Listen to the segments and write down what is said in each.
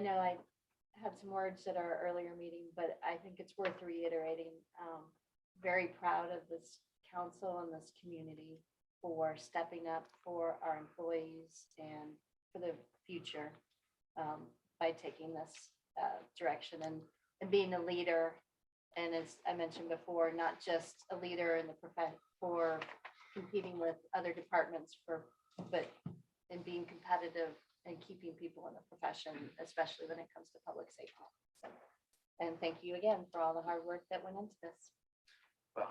know I had some words at our earlier meeting, but I think it's worth reiterating. Um, very proud of this council and this community for stepping up for our employees and for the future um, by taking this uh, direction and, and being a leader. And as I mentioned before, not just a leader in the profession for competing with other departments for, but in being competitive and keeping people in the profession, especially when it comes to public safety. So, And thank you again for all the hard work that went into this. Well,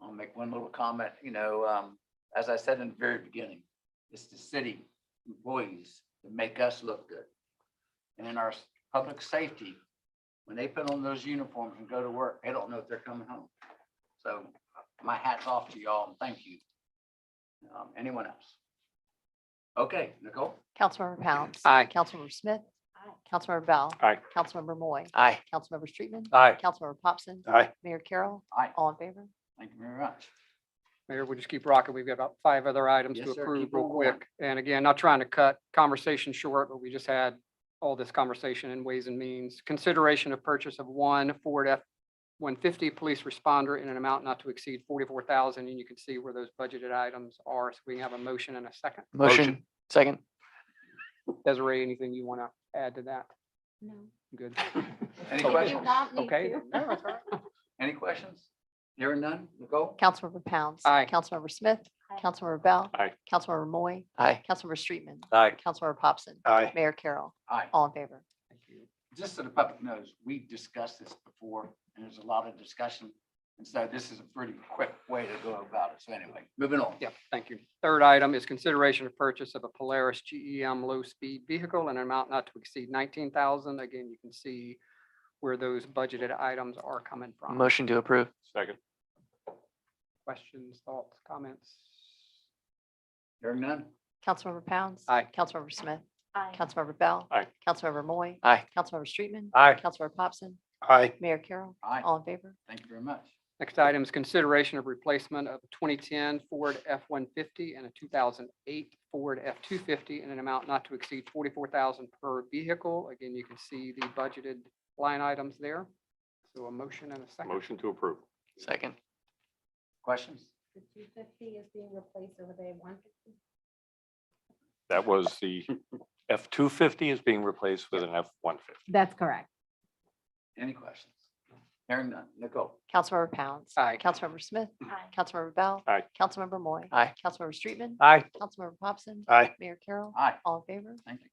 I'll make one little comment, you know, um, as I said in the very beginning, it's the city employees that make us look good. And in our s- public safety, when they put on those uniforms and go to work, they don't know if they're coming home. So my hat's off to y'all and thank you. Um, anyone else? Okay, Nicole? Councilmember Pounds. Aye. Councilmember Smith. Aye. Councilmember Bell. Aye. Councilmember Moy. Aye. Councilmember Streetman. Aye. Councilmember Popson. Aye. Mayor Carroll. Aye. All in favor? Thank you very much. Mayor, we just keep rocking. We've got about five other items to Yes, sir. approve Keep real on going. quick. And again, not trying to cut conversation short, but we just had all this conversation in Ways and Means. Consideration of purchase of one Ford F-150 police responder in an amount not to exceed 44,000. And you can see where those budgeted items are. So we can have a motion and a second. Motion, second. Desiree, anything you want to add to that? No. Good. Any Okay. You questions? got me Okay. too. No, that's all right. Any questions? Hearing none, Nicole? Councilmember Pounds. Aye. Councilmember Smith. Aye. Councilmember Bell. Aye. Councilmember Moy. Aye. Councilmember Streetman. Aye. Councilmember Popson. Aye. Mayor Carroll. Aye. All in favor? Thank you. just so the public knows, we discussed this before, and there's a lot of discussion. And so this is a pretty quick way to go about it. So anyway, moving on. Yep, thank you. Third item is consideration of purchase of a Polaris E GEM low-speed vehicle in an amount not to exceed nineteen thousand. Again, you can see where those budgeted items are coming from. Motion to approve. Second. Questions, thoughts, comments? Hearing none? Councilmember Pounds. Aye. Councilmember Smith. Aye. Councilmember Bell. Aye. Councilmember Moy. Aye. Councilmember Streetman. Aye. Councilmember Popson. Aye. Mayor Carroll. Aye. All in favor? Thank you very much. Next item is consideration of replacement of a twenty-ten Ford F-150 and a two thousand eight Ford F-250 in an amount not to exceed forty-four thousand per vehicle. Again, you can see the budgeted line items there. So a motion and a second. Motion to approve. Second. Questions? The two fifty is being replaced over there, one fifty. That was the F-250 is being replaced with an F-150. That's correct. Any questions? Hearing none. Nicole? Councilmember Pounds. Aye. Councilmember Smith. Aye. Councilmember Bell. Aye. Councilmember Moy. Aye. Councilmember Streetman. Aye. Councilmember Popson. Aye. Mayor Carroll. Aye. All in favor? Thank you.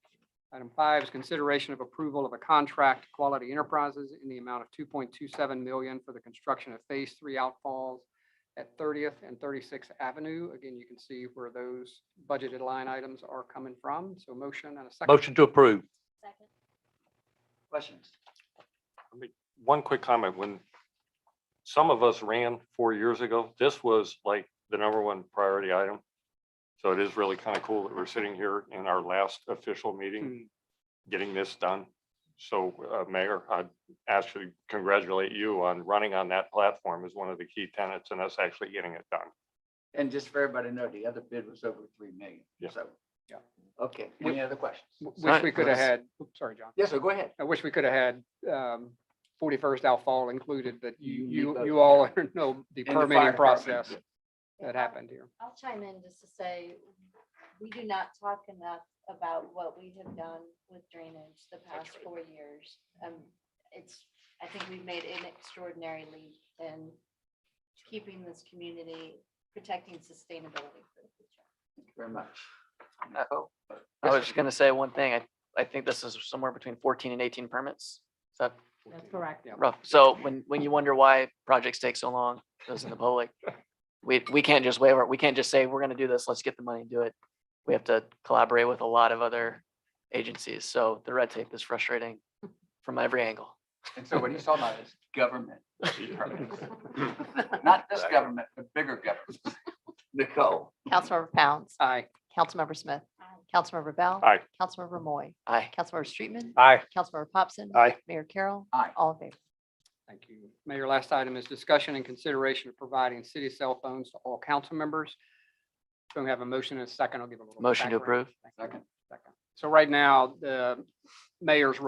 Item five is consideration of approval of a contract to Quality Enterprises in the amount of two point two seven million for the construction of phase three outfalls at Thirtieth and Thirty-sixth Avenue. Again, you can see where those budgeted line items are coming from. So motion and a second. Motion to approve. Second. Questions? One quick comment, when some of us ran four years ago, this was like the number one priority item. So it is really kind of cool that we're sitting here in our last official meeting, Hmm, getting this done. So, uh, Mayor, I'd actually congratulate you on running on that platform as one of the key tenets and us actually getting it done. And just for everybody to know, the other bid was over three million. Yeah. So. Yeah. Okay. We- Any other questions? w- Sorry, Wish we could have Liz. had, oops, sorry, John. Yes, sir. Go ahead. I wish we could have had um, forty-first outfall included, but you, You need you, both. you all know the And the fire permitting department. process that happened here. I'll chime in just to say, we do not talk enough about what we have done with drainage the past four years. Um, it's, I think we've made an extraordinary leap in keeping this community, protecting sustainability for the future. Thank you very much. Nicole? I was just gonna say one thing. I, I think this is somewhere between fourteen and eighteen permits. Is that That's correct. Yeah. rough? So when, when you wonder why projects take so long, those in the public, we, we can't just waiver, it. we can't just say, we're gonna do this, let's get the money and do it. We have to collaborate with a lot of other agencies, so the red tape is frustrating from every angle. And so what he's talking about is government. departments. Not this government, but bigger government. Nicole? Councilmember Pounds. Aye. Councilmember Smith. Aye. Councilmember Bell. Aye. Councilmember Moy. Aye. Councilmember Streetman. Aye. Councilmember Popson. Aye. Mayor Carroll. Aye. All in favor? Thank you. Mayor, last item is discussion and consideration of providing city cell phones to all council members. So we have a motion and a second. I'll give a little. Motion to background. approve. Thank you. Second. Second. So right now, the mayor's